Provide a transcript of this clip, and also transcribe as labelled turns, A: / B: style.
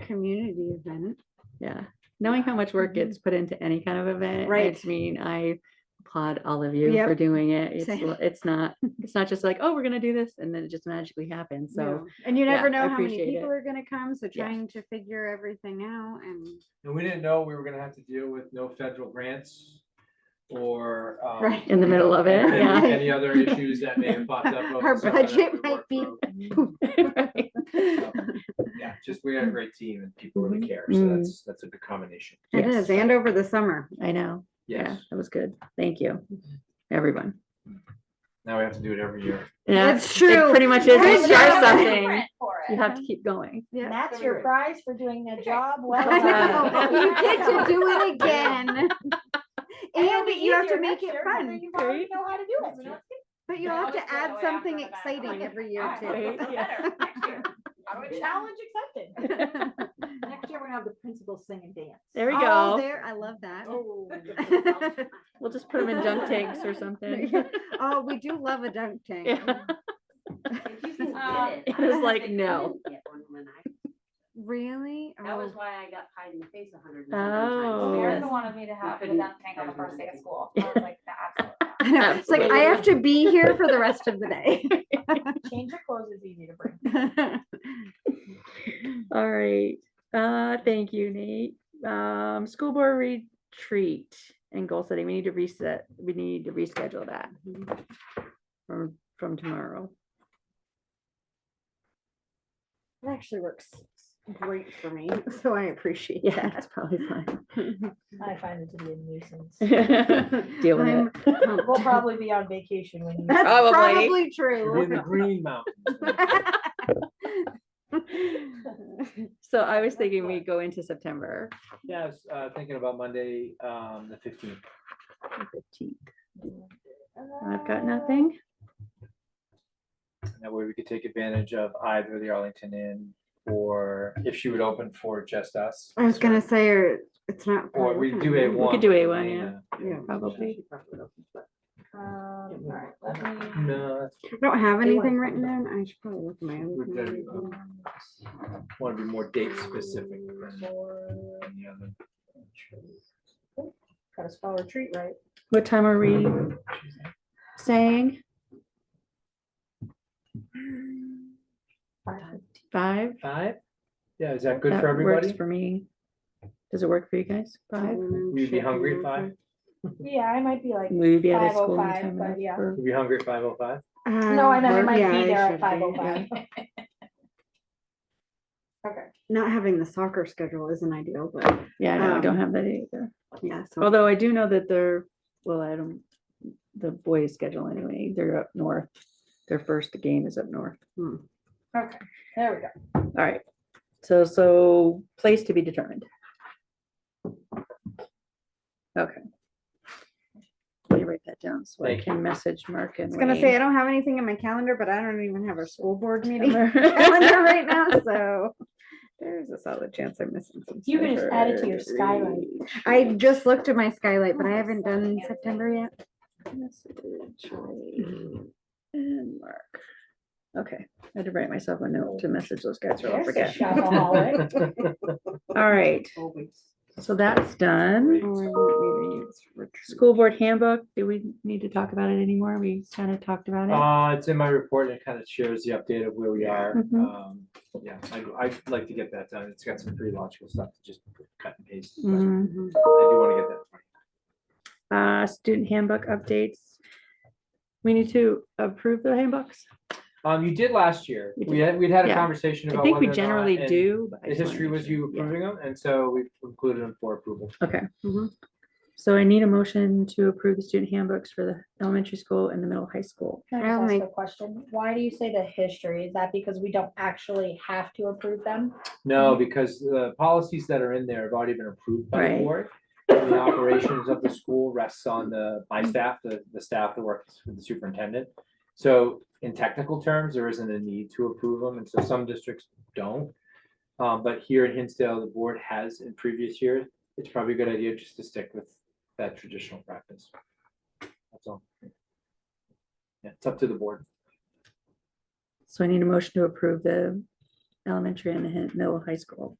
A: community event.
B: Yeah, knowing how much work
A: Mhm.
B: gets put into any kind of event,
A: Right.
B: I mean, I applaud all of you for
A: Yep.
B: doing it. It's,
A: Same.
B: l- it's not, it's not just like, oh, we're gonna do this, and then it just magically happens, so.
A: No. And you
B: yeah,
A: never
B: I
A: know how many
B: appreciate
A: people
B: it.
A: are gonna come, so
B: Yeah.
A: trying to figure everything out and,
C: And we didn't know we were gonna have to deal with no federal grants or. um,
A: Right.
B: In the middle of it,
C: any-
B: yeah.
C: Any other issues that may have popped up. over
A: Our
C: the summer that
A: budget
C: we
A: might
C: worked
A: be-
C: through.
B: Right.
C: So, Yeah, just we had a great team and people really care, so
B: Mm.
C: that's, that's a good combination.
A: it
B: Yes.
A: is, and over the summer.
B: I know, yeah,
C: Yes,
B: that was good, thank you, everyone.
C: now we have to do it every year.
B: Yeah,
A: That's
B: it
A: true.
B: Pretty much is,
A: That
B: you
A: is
B: start
A: true.
B: something,
D: For
B: you
D: it.
B: have to keep going.
D: And
A: Yeah.
D: that's your prize for doing the job well
A: I
D: done.
A: know. You get to do it again.
D: It'll
A: And
D: be
A: you have to
D: easier
A: make
D: next
A: it
D: year because then
A: fun,
D: You probably
B: right?
D: know how to do it.
A: but you'll
D: Yeah,
A: have
D: I'll
A: to
D: just go
A: add
D: away after
A: something
D: the back.
A: exciting every year
D: Alright,
A: too.
B: Right,
D: I'll do better next year. I'm a Challenge accepted.
E: Next year, we're gonna have the principal sing and dance.
B: There we
A: Oh,
B: go,
A: there, I love that.
D: Oh.
B: we'll just put them in junk tanks or something.
A: Oh, we do love a dunk tank.
B: Yeah.
D: Um,
B: It was like, no,
A: Really?
F: That was
A: Oh,
F: why I got pied in the face a hundred.
B: Oh.
D: Erica wanted me to have the
F: couldn't-
D: dunk tank on the first day of school. I was like, "Nah, absolutely
A: I know. It's like, I have to be here for the rest of the day.
D: not." Change of clothes is easy to bring.
B: all right, uh, thank you, Nate. Um, school board retreat and goal setting, we need to reset, we need to reschedule that. From, from tomorrow.
E: It actually works great for me.
A: So I appreciate
B: Yeah,
A: that.
B: that's probably fine.
D: I find it to be a nuisance.
B: Deal with
A: I'm
B: it.
A: pumped.
D: We'll probably be on vacation when you.
A: That's
B: Probably.
A: probably
C: We're in
A: true.
C: the Green Mountains.
B: So I was thinking we go into September
C: Yeah, I was uh, thinking about Monday, um, the fifteenth.
B: fifteenth. I've got nothing.
C: And That way we could take advantage of either the Arlington Inn or if she would open for just us.
A: I was gonna say, or it's not.
C: Or we do
A: a
C: A one.
B: do A1, yeah.
A: Yeah.
B: Probably.
D: Um, all right, let me-
C: No, that's
A: I don't have
E: They wanna
A: anything
E: talk
A: written down. I should probably look at my
C: We've got,
A: own.
C: um, Want to be more date specific. than the other.
D: Got a spell retreat, right?
B: What time are we saying? Five?
C: Five? Yeah, is that good
B: That
C: for
B: works
C: everybody?
B: For me. Does it work for you guys? Five?
C: Will you be hungry at five?
D: Yeah, I might be like,
B: Will you be out of school?
D: 5:05,
B: in time
D: but
B: enough
D: yeah.
B: for-
C: You'll be hungry at five oh five?
A: Uh,
D: no, I know, I
A: never
D: might be there at five oh five. Okay.
A: Not having the soccer schedule isn't ideal, but
B: Yeah, I know, I don't
A: Um,
B: have that either.
A: yeah, so.
B: Although I do know that they're, well, I don't, the boys schedule anyway, they're up north. Their first game is up north.
D: Okay, there we go.
B: All right. So, so place to be determined. Okay. Let me write that down so I
C: Thank
B: can message Mark and
A: I was gonna say, I don't have anything in my calendar, but I don't even have our school board meeting
B: Wayne.
A: calendar right now, so. There's a solid chance I'm missing some.
D: You can just add it to your
B: Sure.
D: skylight.
A: I just looked at my skylight, but I haven't done September yet.
B: Message Wayne And Mark. Okay, I had to write myself a note to message those guys or I'll
D: There's a
B: forget.
D: shopaholic.
B: All right,
E: Always.
B: so that's done. School board handbook, do we need to talk about it anymore? We kind of talked about it.
C: Uh, it's in my report and it kind of shares the update of where we are.
B: Mhm.
C: Um, yeah, I, I'd like to get that done. It's got some pretty logical stuff to just cut and paste. but I do
B: Mm.
F: Mm-hmm.
C: want to get that. done.
B: Uh, student handbook updates. We need to approve the handbooks.
C: Um, you did last year.
B: We
C: We
B: did.
C: had, we'd had a
B: Yeah.
C: conversation
B: I
C: about.
B: think we
C: whether or not,
B: generally
C: uh, and
B: do. but I
C: The
B: just wanna
C: history
B: make
C: was
B: sure.
C: you
B: Yeah.
C: approving them, and so we included them for approval.
B: Okay.
A: Mhm.
B: So I need a motion to approve the student handbooks for the elementary school and the middle high school.
D: Can
A: I'll
D: I just
A: make-
D: ask a question? Why do you say the history? Is that because we don't actually have to approve them?
C: No, because the policies that are in there have already been approved by the
B: Right.
C: board. and The operations of the school rests on the, my staff, the, the staff that works with the superintendent. So in technical terms, there isn't a need to approve them, and so some districts don't. Um, but here in Hinsdale, the board has in previous years, it's probably a good idea just to stick with that traditional practice. That's all. Yeah, it's up to the board.
B: So I need a motion to approve the elementary and the hi- middle high school.